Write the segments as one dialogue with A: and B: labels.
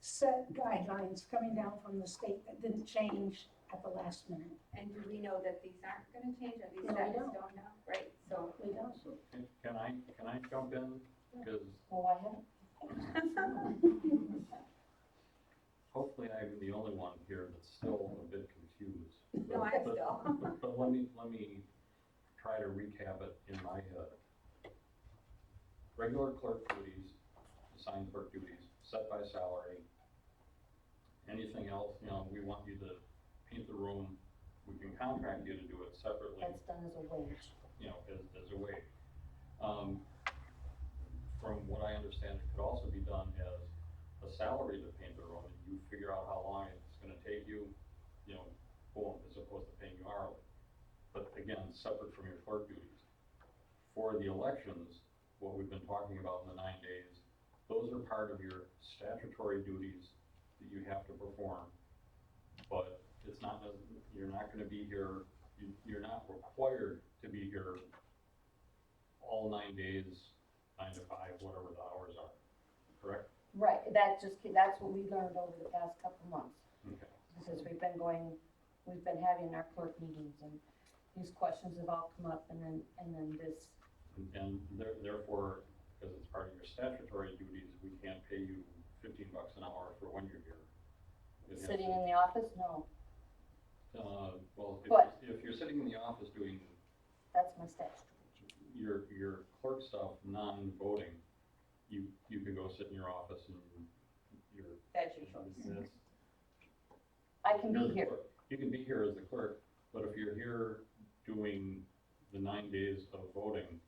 A: set guidelines coming down from the state that didn't change at the last minute.
B: And do we know that these aren't gonna change, or these
A: No, we
B: guys
A: don't.
B: don't know, right? So,
A: We don't.
C: So, can- Can I, can I jump in? Because
D: Well, I haven't,
C: hopefully I'm the only one here that's still a bit confused.
B: no, I
C: But-
B: still,
C: But but let me, let me try to recap it in my head. Regular clerk duties, assigned clerk duties, set by salary. Anything else, you know, we want you to paint the room, we can contract you to do it separately,
D: that's done as a wage.
C: you know, as, as a wage. Um, from what I understand, it could also be done as a salary to paint the room, and you figure out how long it's gonna take you, you know, boom, as opposed to paying you hourly. But again, separate from your clerk duties. For the elections, what we've been talking about in the nine days, those are part of your statutory duties that you have to perform. But it's not, you're not gonna be here you, you're not required to be here all nine days, nine to five, whatever the hours are, correct?
D: Right, that just, ca- that's what we learned over the past couple months,
C: Okay.
D: since we've been going, we've been having our clerk meetings and these questions have all come up and then, and then this,
C: And- And there- therefore, because it's part of your statutory duties, we can't pay you fifteen bucks an hour for when you're here. It has
D: sitting
C: to-
D: in the office, no,
C: Uh, well, if,
D: But-
C: you're- if you're sitting in the office doing
D: that's my statute.
C: your, your clerk stuff, non-voting, you, you could go sit in your office and your
D: That's
C: That's-
D: I can
C: You're
D: be
C: the
D: here,
C: clerk. You can be here as the clerk, but if you're here doing the nine days of voting,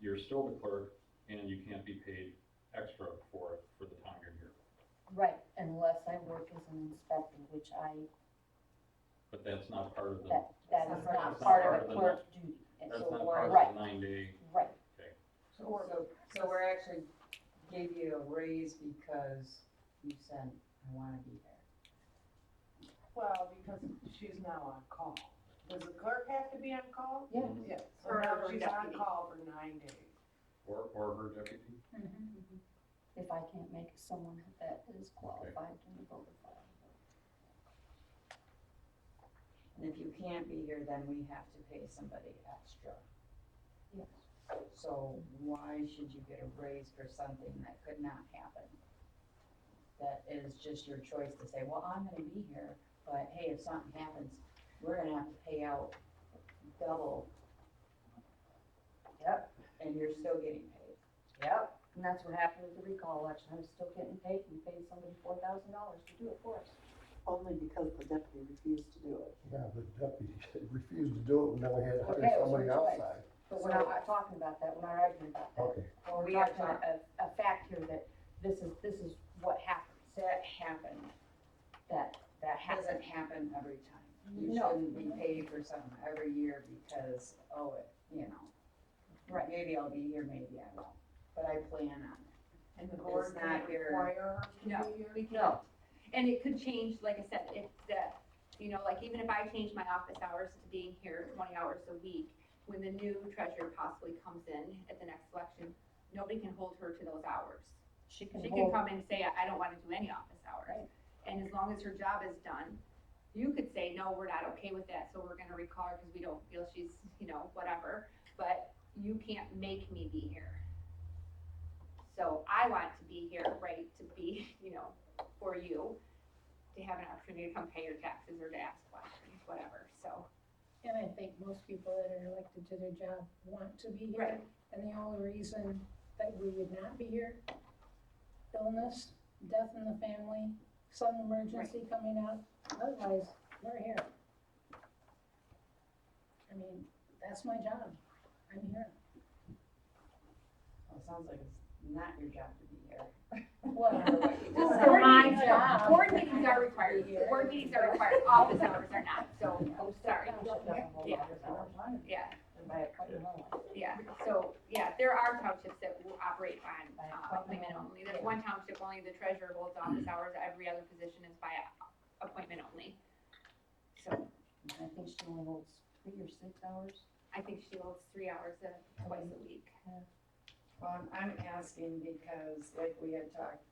C: you're still the clerk and you can't be paid extra for it for the time you're here.
D: right, unless I work as an inspector, which I,
C: But that's not part of the,
D: that, that
B: That's
D: is
B: not
D: not
C: part of
D: part of
C: the-
D: a clerk duty. And
C: that's
D: so
C: not
D: we're-
C: part
D: Right,
C: of the nine day,
D: right,
E: So, so we're actually gave you a raise because you said, I wanna be there.
F: Well, because she's now on call. Does the clerk have to be on call?
D: yeah,
G: Mm-hmm.
F: Yeah. So
B: Or
F: now
B: her
F: she's on
B: deputy.
F: call for nine days.
C: or, or her deputy.
A: Mm-hmm.
D: if I can't make someone that is qualified to be voted for.
E: And if you can't be here, then we have to pay somebody extra.
D: Yes.
E: So why should you get a raise for something that could not happen? That is just your choice to say, well, I'm gonna be here, but hey, if something happens, we're gonna have to pay out double. Yep. And you're still getting paid.
D: Yep, and that's what happened with the recall election, I'm still getting paid, and paid somebody four thousand dollars to do it for us.
G: Only because the deputy refused to do it.
H: Yeah, the deputy refused to do it, and then we had to
D: Okay, it was
H: hire somebody
D: her choice.
H: outside.
D: But we're not talking about that, we're not arguing about that.
H: Okay,
D: Well, we're
E: We are
D: talking about a, a fact here that this is, this is what happens,
E: That happened.
D: that, that
E: Doesn't
D: happened.
E: happen every time. You
D: No.
E: shouldn't be paid for something every year because, oh, it, you know.
D: Right.
E: Maybe I'll be here, maybe I won't, but I plan on it.
F: And the
E: It's
F: board
E: not
F: can't
E: your-
F: require her to be
B: no,
F: here?
B: we can't.
D: No,
B: And it could change, like I said, if the, you know, like even if I change my office hours to being here twenty hours a week, when the new treasurer possibly comes in at the next election, nobody can hold her to those hours.
D: she can
B: She can
D: hold,
B: come and say, I I don't wanna do any office hours.
D: Right.
B: And as long as her job is done, you could say, no, we're not okay with that, so we're gonna recall her because we don't feel she's, you know, whatever. But you can't make me be here. So I want to be here, right, to be, you know, for you, to have an opportunity to come pay your taxes or to ask questions, whatever, so.
A: And I think most people that are elected to their job want to be here. And the only reason that we would not be here, illness, death in the family, some emergency coming up, otherwise, we're here. I mean, that's my job, I'm here.
E: Well, it sounds like it's not your job to be here.
A: Well,
B: Just
A: Well,
B: board
A: my
B: meetings-
A: job.
D: Um,
B: Board meetings are required, board meetings are required, office hours are not, so,
E: Oh,
B: I'm sorry,
D: she doesn't hold
B: Yeah.
D: others out.
B: yeah.
D: by appointment only.
B: Yeah, so, yeah, there are townships that will operate on,
D: By
B: uh, appointment
D: appointment
B: only, Mm-hmm. there's one township only, the treasurer holds office hours, every other position is by a- appointment only. So,
D: And I think she only holds three or six hours.
B: I think she holds three hours a, twice a week.
E: Well, I'm- I'm asking because like we had talked